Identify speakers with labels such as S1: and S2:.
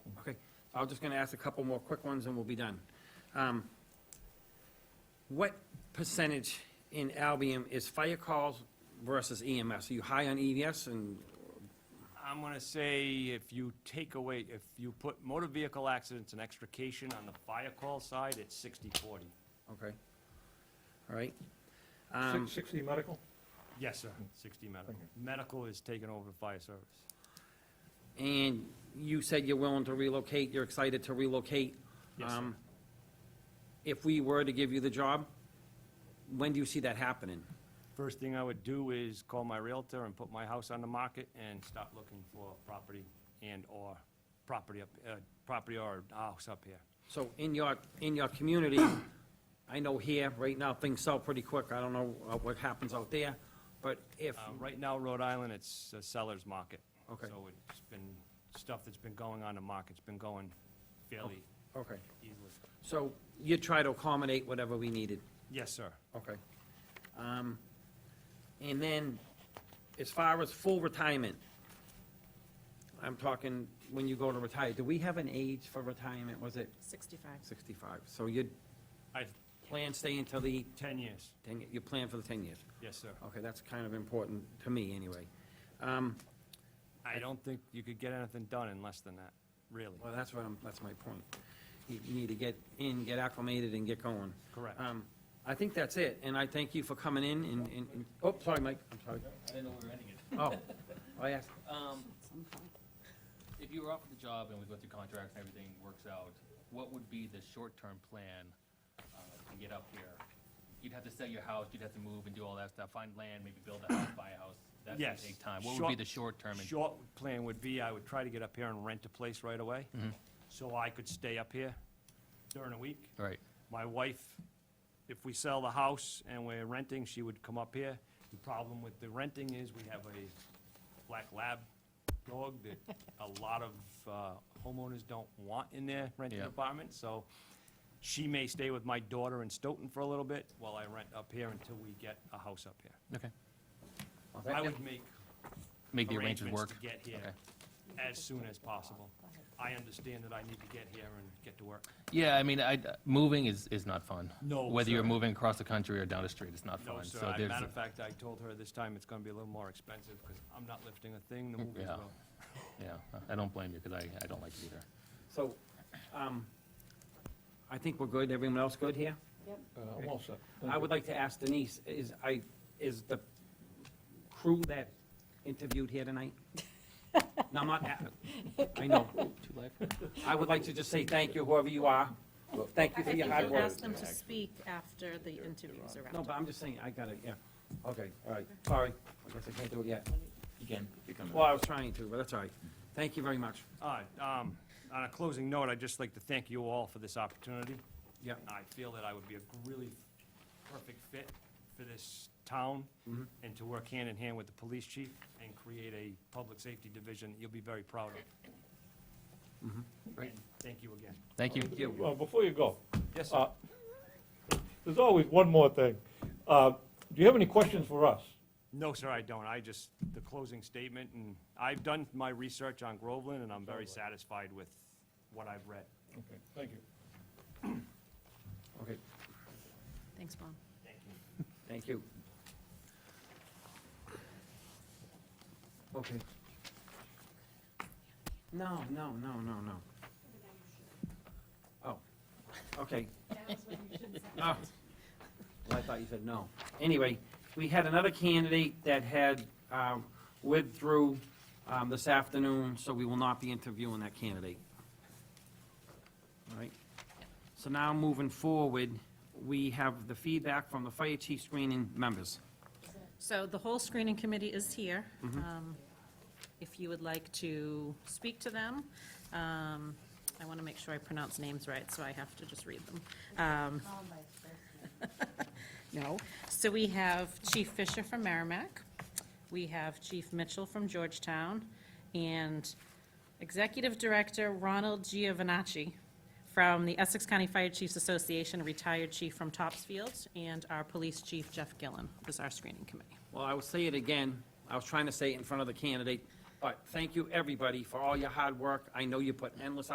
S1: I'm just gonna ask a couple more quick ones and we'll be done. Um, What percentage in Albion is fire calls versus EMS? Are you high on EMS and,
S2: I'm gonna say if you take away, if you put motor vehicle accidents and extrication on the fire call side, it's sixty forty.
S1: okay, all right? Um,
S3: Six- 60 medical?
S2: Yes, sir. Sixty medical.
S3: Okay.
S2: Medical is taken over fire service.
S1: And you said you're willing to relocate, you're excited to relocate.
S2: Yes, sir.
S1: Um, If we were to give you the job, when do you see that happening?
S2: First thing I would do is call my Realtor and put my house on the market and start looking for property and/or property up, uh, property or a house up here.
S1: So in your, in your community, I know here, right now, things sell pretty quick. I don't know uh, what happens out there, but if,
S2: Uh, Right now, Rhode Island, it's a seller's market.
S1: Okay.
S2: So it's been, stuff that's been going on the market's been going fairly
S1: okay,
S2: easily.
S1: so you try to accommodate whatever we needed,
S2: Yes, sir.
S1: okay? Um, And then, as far as full retirement, I'm talking when you go to retire, do we have an age for retirement? Was it
S4: 65.
S1: 65? So you
S2: I,
S1: plan stay until the,
S2: ten years.
S1: 10 you plan for the 10 years?
S2: Yes, sir.
S1: Okay, that's kind of important to me, anyway. Um,
S2: I don't think you could get anything done in less than that, really.
S1: Well, that's what I'm, that's my point. You you need to get in, get acclimated, and get going.
S2: Correct.
S1: Um, I think that's it, and I thank you for coming in and, and, and- oh, sorry, Mike, I'm sorry.
S5: I didn't know we were ending it.
S1: Oh, I asked,
S5: Um, if you were offered the job and we go through contracts and everything works out, what would be the short-term plan, uh, to get up here? You'd have to sell your house, you'd have to move and do all that stuff, find land, maybe build a house, buy a house. That's gonna
S2: Yes.
S5: take time. What would be
S2: Short-
S5: the short-term? and-
S2: Short plan would be, I would try to get up here and rent a place right away, so I could stay up here during the week.
S5: Right.
S2: My wife, if we sell the house and we're renting, she would come up here. The problem with the renting is we have a black lab dog that a lot of uh, homeowners don't want in their renting
S5: Yeah.
S2: apartment, so she may stay with my daughter in Stoughton for a little bit while I rent up here until we get a house up here.
S5: Okay.
S2: I would make
S5: Make the arrangements
S2: arrangements
S5: work.
S2: to get here as soon as possible. I understand that I need to get here and get to work.
S5: Yeah, I mean, I, moving is, is not fun.
S2: No, Whether you're sir.
S5: moving across the country or down the street, it's not
S2: Oh, No, sir, I- matter of fact, I told her this time it's gonna be a little more expensive, because I'm not lifting a thing, the movies
S5: Yeah.
S2: will.
S5: yeah, I don't blame you, because I, I don't like it either.
S1: so, um, I think we're good, everyone else good here?
S3: Uh, I'm all set.
S1: I would like to ask Denise, is, I, is the crew that interviewed here tonight? No, I'm not, a- I know. I would like to just say thank you, whoever you are. Thank you for
S4: I think
S1: your
S4: you
S1: hard work.
S4: asked them to speak after the interviews are
S1: No,
S4: wrapped
S1: but
S4: up.
S1: I'm just saying, I gotta, yeah, okay, all right, sorry, I guess I can't do it yet.
S6: You can, you can.
S1: Well, I was trying to, but that's all right. Thank you very much.
S2: All right, um, on a closing note, I'd just like to thank you all for this opportunity.
S1: Yeah.
S2: I feel that I would be a really perfect fit for this town, and to work hand in hand with the police chief and create a public safety division that you'll be very proud of. And thank you again.
S5: Thank you.
S3: Well, before you go,
S2: Yes,
S3: uh, there's always one more thing. Uh, Do you have any questions for us?
S2: No, sir, I don't. I just, the closing statement, and I've done my research on Groveland, and I'm very satisfied with what I've read.
S3: Okay, thank you.
S1: Okay,
S4: Thanks, Bob.
S1: thank you. Okay. No, no, no, no, no. Oh, okay. Oh. Well, I thought you said no. Anyway, we had another candidate that had um, withdrew um, this afternoon, so we will not be interviewing that candidate. All right. So now, moving forward, we have the feedback from the fire chief screening members.
S4: So the whole screening committee is here. Um, If you would like to speak to them, um, I want to make sure I pronounce names right, so I have to just read them. Um, No. So we have Chief Fisher from Merrimack. We have Chief Mitchell from Georgetown. And Executive Director Ronald Giovanacci from the Essex County Fire Chiefs Association, retired chief from Topsfield, and our police chief, Jeff Gillen, was our screening committee.
S1: Well, I will say it again, I was trying to say it in front of the candidate, but thank you, everybody, for all your hard work. I know you put endless